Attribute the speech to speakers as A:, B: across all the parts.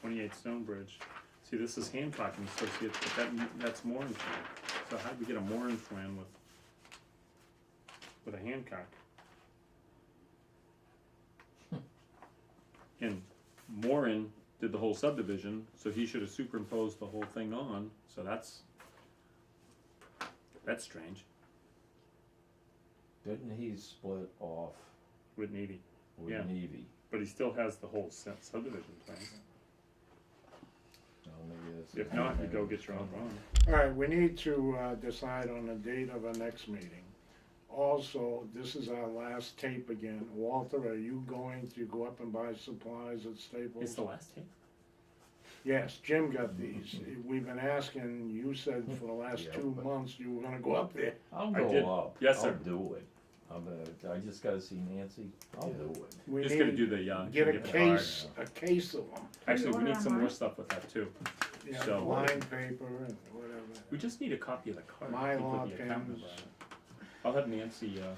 A: twenty-eight Stonebridge. See, this is Hancock and Associates, but that, that's Moran's land. So how do we get a Moran's land with, with a Hancock? And Moran did the whole subdivision, so he should have superimposed the whole thing on, so that's, that's strange.
B: Didn't he split off
A: With Navy,
B: with
A: Yeah.
B: Nevy?
A: but he still has the whole se- subdivision plan.
B: No, maybe that's.
A: If not, you go get your own bond.
C: All right, we need to uh, decide on the date of our next meeting. Also, this is our last tape again. Walter, are you going to go up and buy supplies at
A: It's
C: Staples?
A: the last tape.
C: Yes, Jim got these. We've been asking, you said for the last
B: Yeah,
C: two
B: but-
C: months you were gonna go up there.
B: I'll
A: I did.
B: go up.
A: Yes,
B: I'll
A: sir.
B: do it. I'm gonna, I just gotta see Nancy. I'll do it.
C: We
A: Just gonna
C: need,
A: do the, uh,
C: get a
A: the card.
C: case, a case of them.
A: Actually, we
D: Order
A: need some more
D: online.
A: stuff with that too.
C: Yeah,
A: So-
C: line paper and whatever.
A: We just need a copy of the card.
C: Mylar
A: You put the account
C: pens.
A: number on it. I'll have Nancy, uh,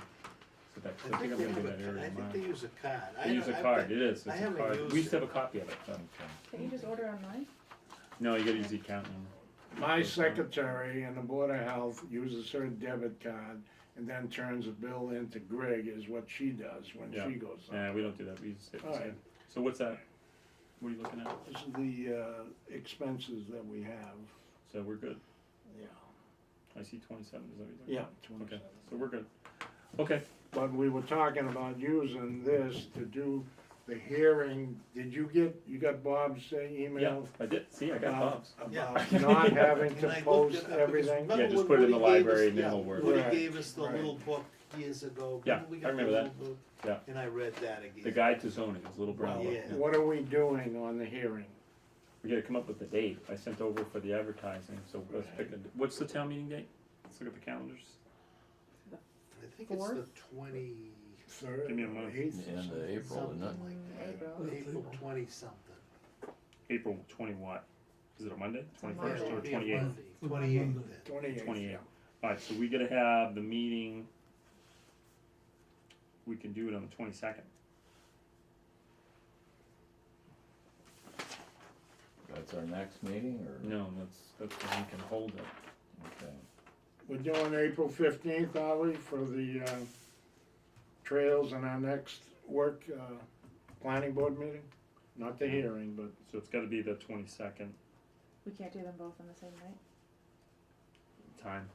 A: put that, I
E: I
A: think
E: think
A: I'm
E: they
A: gonna do
E: have
A: that
E: a,
A: area
E: I
A: of
E: think they
A: mine.
E: use a card. I
A: They use a
E: don't- I've
A: card,
E: got-
A: it is,
E: I
A: it's a
E: haven't
A: card.
E: used
A: We used to
E: it.
A: have a copy of it, but,
D: Can you just order online?
A: no, you gotta use the account number.
C: My secretary and the Board of Health uses her debit card and then turns the bill into Greg is what she does when
A: Yeah.
C: she goes up.
A: Nah, we don't do that, we use it.
C: Alright.
A: So what's that? What are you looking at?
C: This is the uh, expenses that we have.
A: So we're good.
C: Yeah.
A: I see twenty-seven, is that what you're
C: Yeah.
A: talking about? Okay, so we're good. Okay,
C: But we were talking about using this to do the hearing. Did you get, you got Bob's uh,
A: yeah,
C: email?
A: I did, see, I got
C: about-
A: Bob's.
C: About not having
E: And I
C: to
E: looked
C: post
E: it up because
C: everything?
E: remember
A: Yeah, just
E: when
A: put it in the
E: Woody gave us-
A: library and then
E: yeah,
A: we'll work.
C: Right,
E: Woody gave us the
C: right.
E: little book years ago.
A: Yeah,
E: Remember we
A: I
E: got the
A: remember that.
E: little book?
A: Yeah.
E: And I read that again.
A: The guide to zoning, his little brown book.
E: Yeah.
A: yeah.
C: What are we doing on the hearing?
A: We gotta come up with a date. I sent over for the advertising, so let's pick a, what's the town meeting date? Let's look at the calendars.
E: I think it's the
D: Fourth?
E: twenty,
C: Third
A: Give me a
C: or
A: month.
C: eighth or
B: End
C: something?
B: of April,
E: something
B: isn't it?
E: like
D: April.
E: that, April twenty something.
A: April twenty what? Is it a Monday?
D: a
A: Twenty
E: Yeah,
A: first
E: it'll
A: or
E: be a
A: twenty eighth?
E: Monday, Twenty-eighth then.
C: Twenty-eighth.
A: Twenty
C: yeah.
A: eighth. Alright, so we gotta have the meeting. We can do it on the twenty second.
B: That's our next meeting or?
A: No, that's, that's when we can hold it.
B: Okay.
C: We're doing April fifteenth, Ollie, for the, uh, trails in our next work, uh, planning board meeting? Not the hearing, but
A: So it's gotta be the twenty second
D: We can't do them both on the same night.
A: time.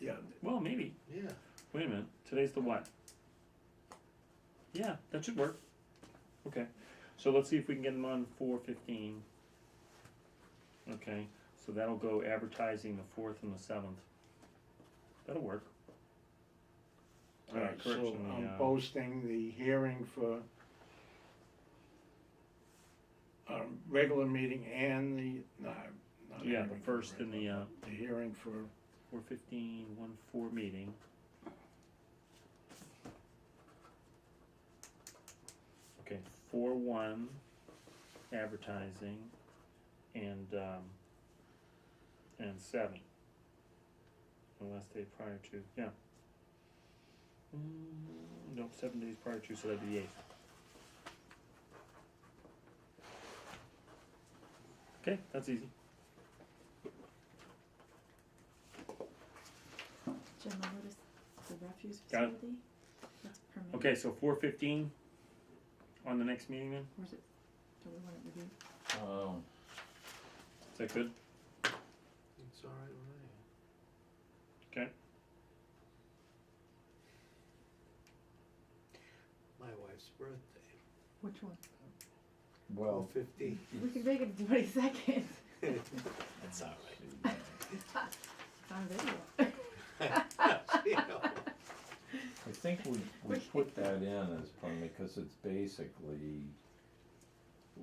C: Yeah.
A: Well, maybe.
E: Yeah,
A: Wait a minute. Today's the what? Yeah, that should work. Okay. So let's see if we can get them on four fifteen. Okay, so that'll go advertising the fourth and the seventh. That'll work. Alright,
C: So um,
A: correction, the,
C: I'm
A: uh,
C: posting the hearing for our uh, regular meeting and the, no,
A: yeah,
C: not.
A: the
C: hearing for
A: first and the,
C: regular,
A: uh,
C: The hearing for,
A: four fifteen, one four meeting. Okay, four one advertising and um and seven. The last day prior to, yeah. Mm, nope, seven days prior to, so that'd be the eighth. Okay, that's easy.
D: Jim, I noticed the refuse
A: Got it.
D: facility. That's permanent.
A: Okay, so four fifteen on the next meeting then?
D: Or is it, do we want it reviewed?
B: Um,
A: Is that good?
E: it's all right with me.
A: Okay.
E: My wife's birthday,
D: Which one?
B: well.
E: twelve fifteen,
A: Hmm.
D: We can make it twenty-second.
E: that's all right.
D: It's on video.
E: Yeah.
B: I think we, we put that in as part, because it's basically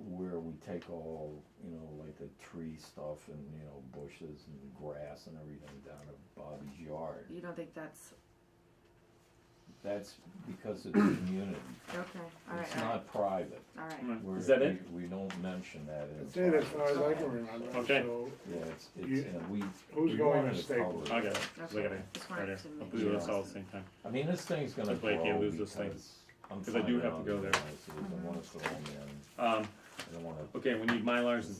B: where we take all, you know, like the tree stuff and, you know, bushes and grass and everything down to Bobby's yard.
D: You don't think that's,
B: That's because it's community,
D: okay, alright,
B: it's
D: alright,
B: not private.
D: alright.
B: We're-
A: Is that it?
B: We, we don't mention that in.
C: that's it as far
B: private.
C: as I can remember.
A: Okay.
C: So
B: Yeah, it's,
C: You-
B: it's, and we.
C: who's
B: we
C: going
B: wanted
C: to
B: cover
C: Staples?
A: I got it. I got it.
D: Just
A: Right
D: wanted
A: here.
D: to
A: I'll
D: make
A: do
D: sure.
A: this all at the same time.
B: I mean, this thing's gonna
A: Hopefully I
B: grow
A: can't lose this
B: because
A: thing.
B: I'm.
A: 'Cause I do
B: finding
A: have
B: out
A: to go
B: the
A: there.
B: nuances and once they're all in,
A: Um,
B: I don't wanna
A: okay, we need Mylars and